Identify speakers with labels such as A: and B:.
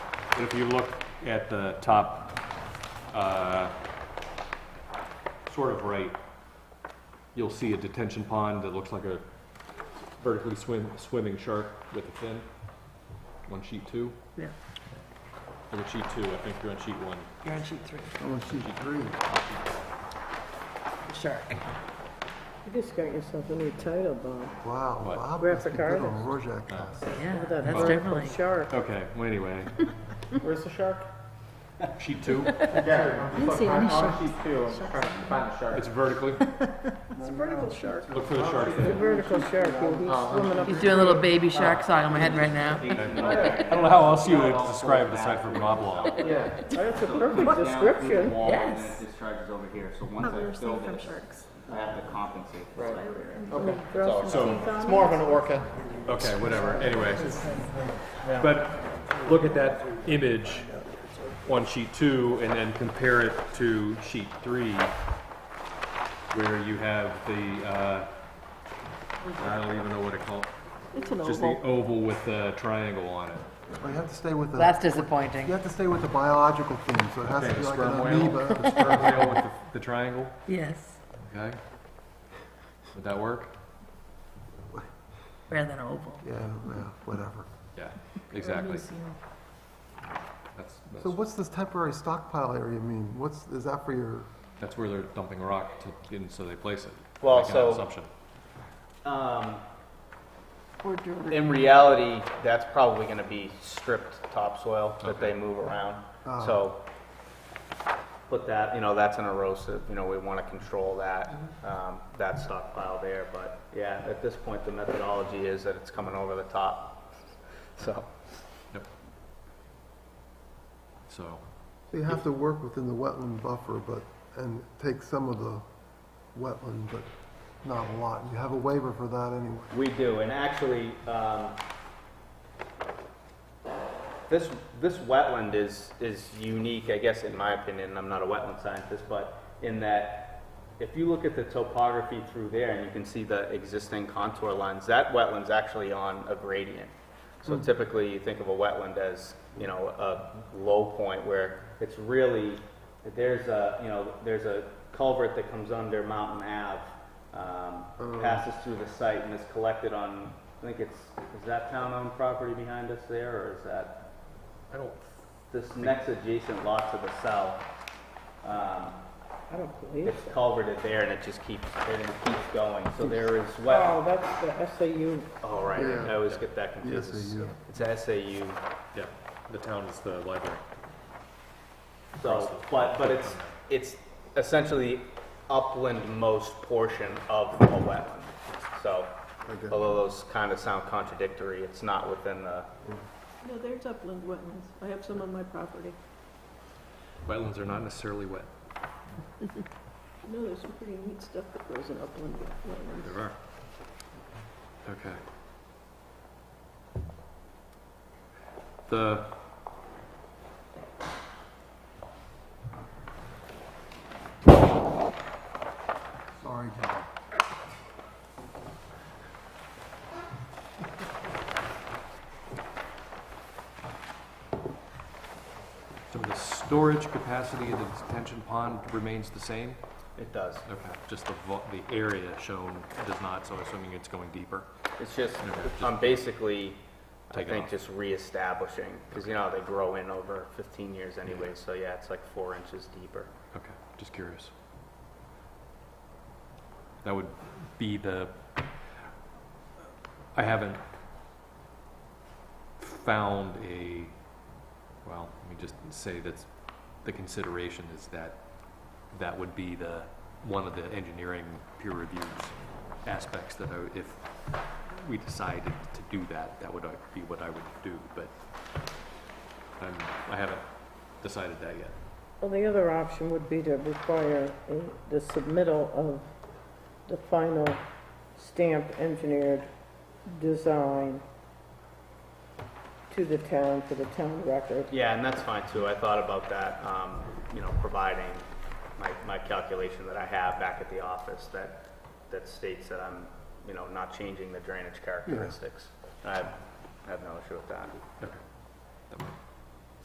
A: But if you look at the top, uh, sort of right, you'll see a detention pond that looks like a vertically swim, swimming shark with a fin on sheet two.
B: Yeah,
A: You're on sheet two, I think you're on sheet one.
B: you're on sheet three,
C: Oh, she's green.
B: shark.
D: You just got yourself a new title, Bob.
C: Wow,
A: What? Uh,
C: Bob
D: Graphic
C: must have been
D: artist.
C: on Rorschach.
B: Yeah,
D: With that
B: that's
D: vertical
B: definitely,
D: Shark.
A: Okay, well, anyway,
E: Where's the shark?
A: sheet two,
E: Yeah, I'm
B: see any
E: I'm
B: sharks.
E: on sheet two, I'm trying to find the shark.
A: it's vertically,
D: It's a vertical shark.
A: look for the shark
D: The
A: fin.
D: vertical shark, he's swimming up.
B: he's doing a little baby shark song in my head right now.
A: I don't know how else you would describe it aside from an oblong.
E: Yeah.
D: That's a perfect description.
B: Yes.
F: This charge is over here, so once
G: we
F: I
G: were
F: fill
G: safe from
F: this,
G: sharks.
F: I have to compensate.
E: Right.
D: Okay. Throw some
A: So-
D: teeth on
E: It's
D: it.
E: more of an orca.
A: Okay, whatever, anyway. But look at that image on sheet two and then compare it to sheet three, where you have the, uh, I don't even know what to call it.
D: It's an
A: Just the
D: oval.
A: oval with the triangle on it.
C: But you have to stay with the,
B: That's
C: you
B: disappointing.
C: have to stay with the biological thing, so it has
A: Okay,
C: to be
A: the
C: like
A: sperm
C: an
A: whale,
C: amoeba.
A: the sperm whale with the, the triangle,
B: Yes,
A: okay? Would that work?
B: rather than oval.
C: Yeah, yeah, whatever.
A: Yeah, exactly. That's,
C: So
A: that's,
C: what's this temporary stockpile area mean? What's, is that for your,
A: that's where they're dumping rock to, in, so they place it.
E: Well,
A: Making an
E: so-
A: Assumption.
E: Um,
D: Or dirt.
E: in reality, that's probably gonna be stripped topsoil that they move around,
B: Oh.
C: Ah.
E: so. Put that, you know, that's an erosive, you know, we wanna control that,
B: Mm-hmm.
E: um, that stockpile there, but yeah, at this point, the methodology is that it's coming over the top. So,
A: Yep. So,
C: so you have to work within the wetland buffer, but, and take some of the wetland, but not a lot. You have a waiver for that anyway.
E: we do, and actually, um, This, this wetland is, is unique, I guess, in my opinion, and I'm not a wetland scientist, but in that if you look at the topography through there and you can see the existing contour lines, that wetland's actually on a gradient. So typically, you think of a wetland as, you know, a low point where it's really, there's a, you know, there's a culvert that comes under Mountain Ave, um, passes through the site and is collected on, I think it's, is that town-owned property behind us there, or is that?
A: I don't,
E: this next adjacent lot to the south, um,
D: I don't believe
E: it's
D: so.
E: culverted there and it just keeps, and it keeps going, so there is
D: Oh,
E: well.
D: that's the SAU.
E: Oh, right, I always get that confused.
C: SAU.
E: It's SAU,
A: yeah, the town is the library.
E: so, but, but it's, it's essentially uplandmost portion of a wetland. So, although those kind of sound contradictory, it's not within the,
G: No, there's upland wetlands. I have some on my property.
A: Wetlands are not necessarily wet.
G: No, there's some pretty neat stuff that grows in upland wetlands.
A: There are. Okay. The.
C: Sorry, Bob.
A: So the storage capacity of the detention pond remains the same?
E: it does.
A: Okay, just the, vo- the area shown does not, so assuming it's going deeper.
E: It's just,
A: Yeah, just
E: I'm basically, I
A: take it
E: think,
A: off.
E: just reestablishing, because you know, they grow in over fifteen years anyway, so yeah, it's like four inches deeper.
A: Okay, just curious. That would be the, I haven't found a, well, let me just say that's, the consideration is that, that would be the, one of the engineering peer reviews aspects that I, if we decided to do that, that would be what I would do, but I'm, I haven't decided that yet.
D: Well, the other option would be to require a- the submittal of the final stamped engineered design to the town for the town record.
E: Yeah, and that's fine too, I thought about that, um, you know, providing my, my calculation that I have back at the office that, that states that I'm, you know, not changing the drainage characteristics. I have I have no issue with that.
A: Okay.